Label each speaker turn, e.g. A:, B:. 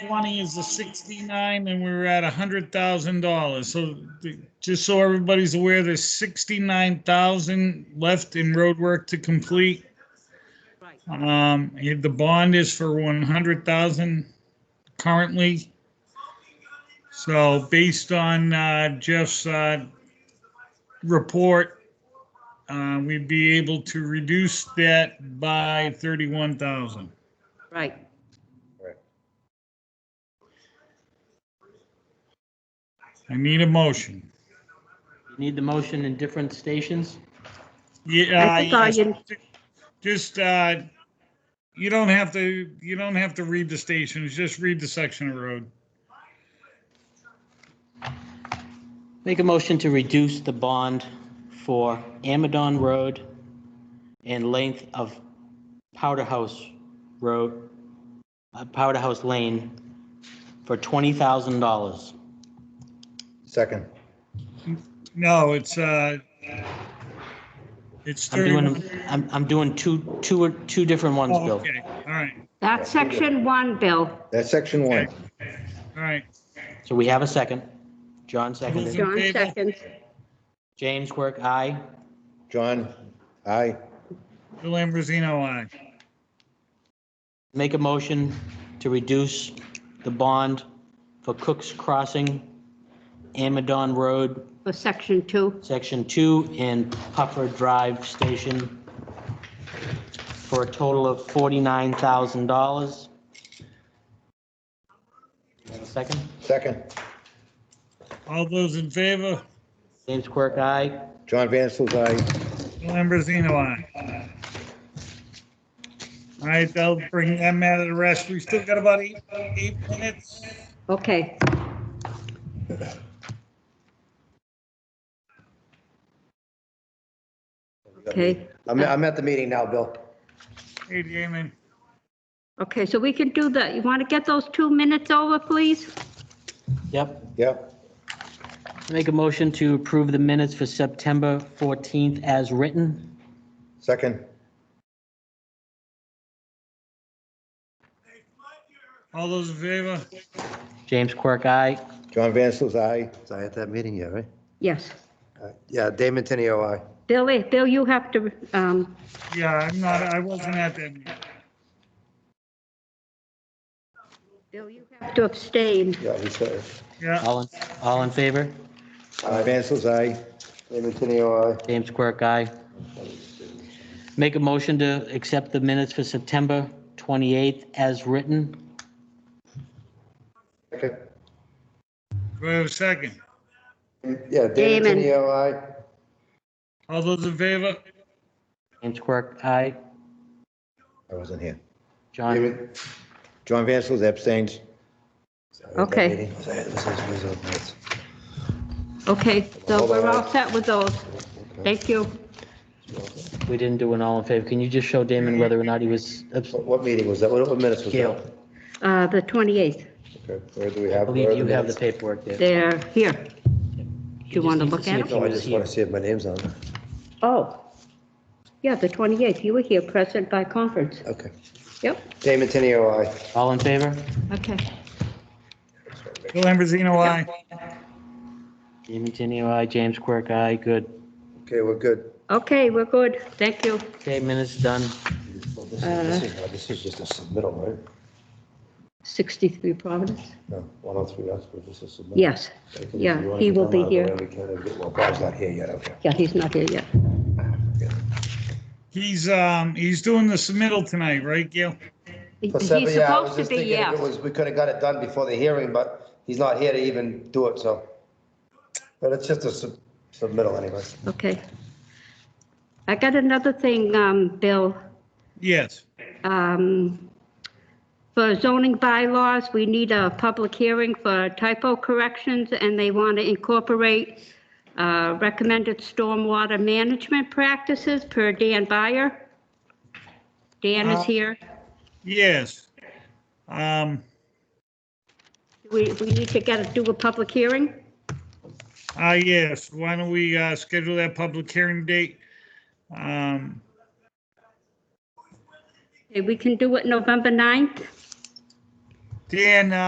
A: twenty is the sixty-nine, and we were at a hundred thousand dollars, so the- just so everybody's aware, there's sixty-nine thousand left in roadwork to complete.
B: Right.
A: Um, if the bond is for one hundred thousand currently. So based on uh, Jeff's uh, report, uh, we'd be able to reduce that by thirty-one thousand.
B: Right.
A: I need a motion.
C: You Need the motion in different stations?
A: Yeah. uh,
B: I think I,
A: yes.
B: in-
A: just, uh, you don't have to, you don't have to read the stations, just read the section of road.
C: Make a motion to reduce the bond for Amadon Road and length of Powder House Road, uh, Powder House Lane for $20,000.
D: Second.
A: No, it's, uh, it's
C: I'm
A: 30.
C: doing, them- I'm, I'm doing two, two, two different ones,
A: Oh,
C: Bill.
A: Okay, all right,
B: that's section one, Bill.
D: That's section one.
A: all right.
C: So we have a second. John seconded.
B: John
A: favor?
B: seconds.
C: James Quirk, aye.
D: John, aye.
A: Bill Ambrosino, aye.
C: Make a motion to reduce the bond for Cook's Crossing, Amadon Road,
B: for section two.
C: Section 2, and Puffer Drive Station for a total of $49,000. Second,
D: Second.
A: All those in favor?
C: James Quirk, aye.
D: John Vansel's aye.
A: Bill Ambrosino, aye. All right, that'll bring that matter to rest. We've still got about eight, eight minutes.
B: Okay, okay.
D: I'm, I'm at the meeting now, Bill.
A: Hey, Damon.
B: Okay, so we can do that. You want to get those two minutes over, please?
C: Yep.
D: Yep.
C: Make a motion to approve the minutes for September 14th as written.
D: Second.
A: All those in favor?
C: James Quirk, aye.
D: John Vansel's aye. Was I at that meeting yet, right?
B: Yes.
D: Uh, Yeah, Damon Tenio, aye.
B: Billy, Bill, you have to, um,
A: Yeah, I'm not, I wasn't at that meeting.
B: Bill, you have to abstain.
D: Yeah, he's there.
A: Yeah,
C: All, in- all in favor?
D: John Vansel's aye. Damon Tenio, aye.
C: James Quirk, aye. Make a motion to accept the minutes for September 28th as written.
D: Second.
A: do I have a second?
D: Yeah,
B: Damon.
D: Tenio, aye.
A: All those in favor?
C: James Quirk, aye.
D: I wasn't here.
C: John,
D: John Vansel's abstains.
B: Okay. Okay, so we're all set with those. Thank you.
C: we didn't do an all in favor. Can you just show Damon whether or not he was, abs-
D: What- What meeting was that? What what minutes was that?
C: Gail,
B: Uh, the 28th,
D: Okay, Where do we
C: I
D: have? where
C: believe
D: are
C: you have the
D: minutes?
C: paperwork there.
B: they're here.
C: You
B: you
C: just
B: wanna
C: need
B: look
C: see
B: at
C: if
B: it?
C: he
D: No, Oh, I
C: was
D: just
C: here.
D: want to see if my name's on it.
B: Oh, yeah, the 28th. You were here present by conference.
D: Okay.
B: Yep,
D: Damon Tenio, aye.
C: All in favor?
B: okay.
A: Bill Ambrosino, aye.
C: Damon Tenio, aye. James Quirk, aye. Good.
D: Okay, we're good.
B: Okay, we're good. Thank you.
C: Okay, minutes done.
D: Well, This
B: Uh,
D: is- this is this is just a submittal, right?
B: 63 Providence?
D: No, 103, that's what this is submittal.
B: Yes,
D: Okay, if you
B: yeah,
D: wanna
B: he
D: get
B: will
D: them
B: be
D: out of the
B: here.
D: way, we can, uh, get- Well, Bob's not here yet, okay.
B: yeah, he's not here yet.
A: He's, um, he's doing the submittal tonight, right, Gil?
B: He-
D: For
B: He's
D: seven, yeah, I was
B: supposed to
D: just
B: be,
D: thinking if it
B: yeah.
D: was, we could have got it done before the hearing, but he's not here to even do it, so. But it's just a sub- submittal anyway.
B: Okay. I got another thing, um, Bill.
A: Yes.
B: Um, For zoning bylaws, we need a public hearing for typo corrections, and they want to incorporate uh, recommended stormwater management practices per Dan Byer. Dan
D: Uh-huh.
B: is here.
A: Yes. Um,
B: We, we need to get, a- do a public hearing.
A: ah, yes, why don't we, uh, schedule that public hearing date? Um,
B: Okay, We can do it November 9th.
A: Dan, uh,